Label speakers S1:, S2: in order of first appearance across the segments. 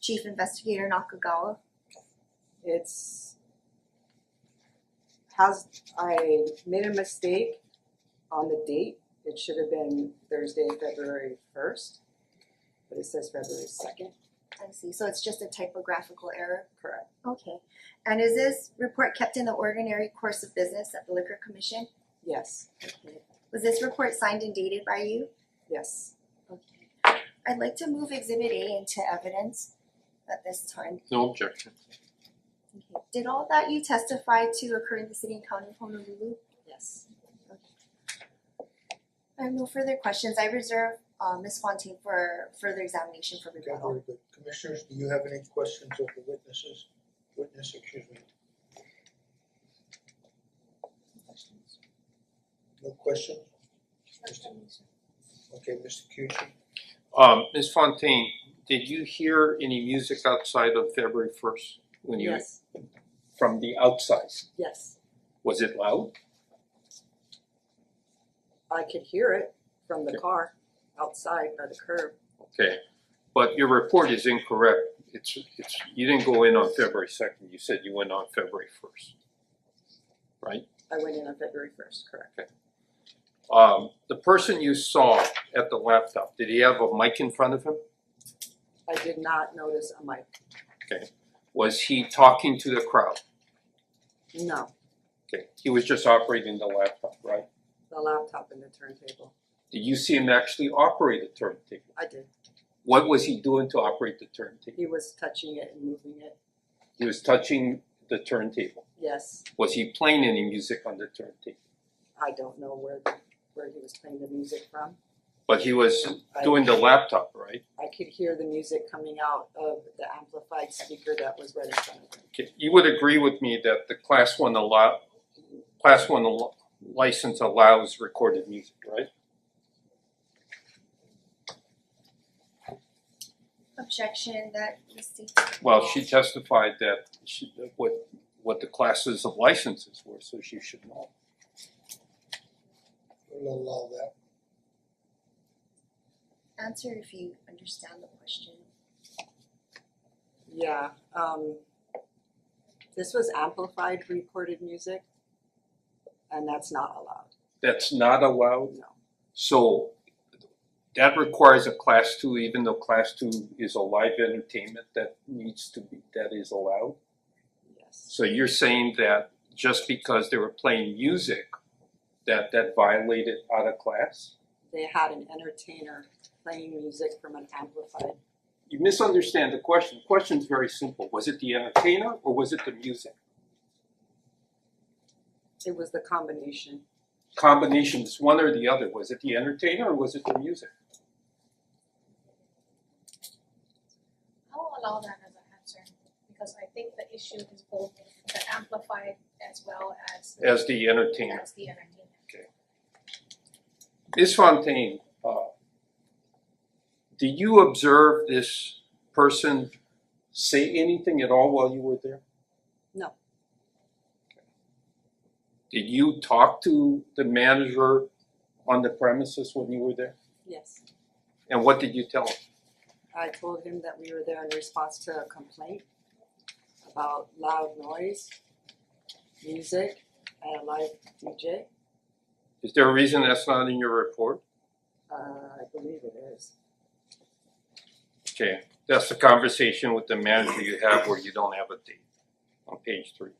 S1: Chief Investigator Nakagawa.
S2: It's has, I made a mistake on the date. It should have been Thursday, February first, but it says February second.
S1: I see, so it's just a typographical error.
S2: Correct.
S1: Okay. And is this report kept in the ordinary course of business at the Liquor Commission?
S2: Yes,
S1: Was this report signed and dated by you?
S2: yes.
S1: Okay. I'd like to move exhibit A into evidence at this time.
S3: No objection.
S1: Okay. Did all that you testify to occur in the city and county of Honolulu?
S2: Yes.
S1: I have no further questions. I reserve uh Ms. Fontaine for further examination for
S4: Okay,
S1: rebuttal.
S4: very good. Commissioners, do you have any questions of the witnesses? Witness, excuse me. No question? Okay, Mr. Kyuchi,
S3: Um, Ms. Fontaine, did you hear any music outside of February first when you
S2: Yes,
S3: from the outside?
S2: yes.
S3: Was it loud?
S2: I could hear it from the car outside by the curb.
S3: Okay, but your report is incorrect. It's it's you didn't go in on February second. You said you went on February first.
S2: I went in on February first, correct?
S3: Um, the person you saw at the laptop, did he have a mic in front of him?
S2: I did not notice a mic.
S3: Was he talking to the crowd?
S2: No,
S3: Okay, he was just operating the laptop, right?
S2: the laptop and the turntable.
S3: Did you see him actually operate a turntable?
S2: I did.
S3: What was he doing to operate the turntable?
S2: He was touching it and moving it.
S3: He was touching the turntable.
S2: Yes,
S3: Was he playing any music on the turntable?
S2: I don't know where where he was playing the music from.
S3: But he was
S2: I-
S3: doing the laptop, right?
S2: I could hear the music coming out of the amplified speaker that was right in front of him.
S3: Okay, You would agree with me that the class one allow, class one al- license allows recorded music, right?
S1: Objection that Ms. Steve.
S3: Well, she testified that she, what, what the classes of licenses were, so she should know.
S4: we'll allow that.
S1: Answer if you understand the question.
S2: Yeah, um this was amplified recorded music and that's not allowed.
S3: That's not allowed,
S2: No.
S3: so that requires a class two, even though class two is a live entertainment that needs to be, that is allowed?
S2: Yes.
S3: So you're saying that just because they were playing music, that that violated out of class?
S2: They had an entertainer playing music from an amplified.
S3: You misunderstand the question. The question's very simple. Was it the entertainer or was it the music?
S2: It was the combination.
S3: Combination, it's one or the other. Was it the entertainer or was it the music?
S5: I will allow that as an answer, because I think the issue is both the amplified as well as the
S3: As the entertainer.
S5: as the entertainment.
S3: Ms. Fontaine, uh did you observe this person say anything at all while you were there?
S2: No.
S3: Did you talk to the manager on the premises when you were there?
S2: Yes.
S3: And what did you tell him?
S2: I told him that we were there in response to a complaint about loud noise, music, and a live DJ.
S3: Is there a reason that's not in your report?
S2: Uh, I believe it is.
S3: Okay, that's the conversation with the manager you have where you don't have a date on page three.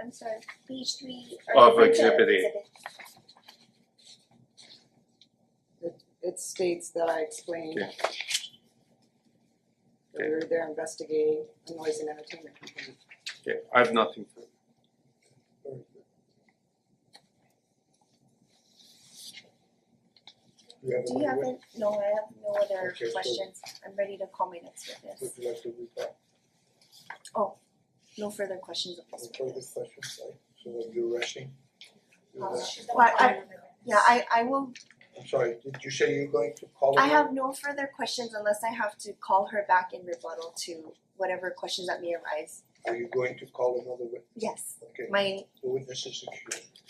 S1: I'm sorry, page three
S3: Of
S1: or
S3: exhibit A.
S2: It states that I explained
S3: Okay.
S2: that we were there investigating a noise and entertainment complaint.
S3: Okay, I have nothing for you.
S4: Very good. Do you have
S1: Do you have
S4: another
S1: an, no, I have no other
S4: Okay, so-
S1: questions. I'm ready to call my next
S4: witness?
S1: witness.
S4: Would you like to read that?
S1: No further questions of this
S4: No further
S1: witness.
S4: questions, right? So when you're rushing. You're
S1: Uh,
S4: rushing.
S5: She's not
S1: Well, I-
S5: part of it.
S1: Yeah, I I will,
S4: I'm sorry, did you say you're going to call
S1: I
S4: them?
S1: have no further questions unless I have to call her back in rebuttal to whatever questions that may arise.
S4: Are you going to call another witness?
S1: Yes,
S4: Okay,
S1: my
S4: the witness is excused.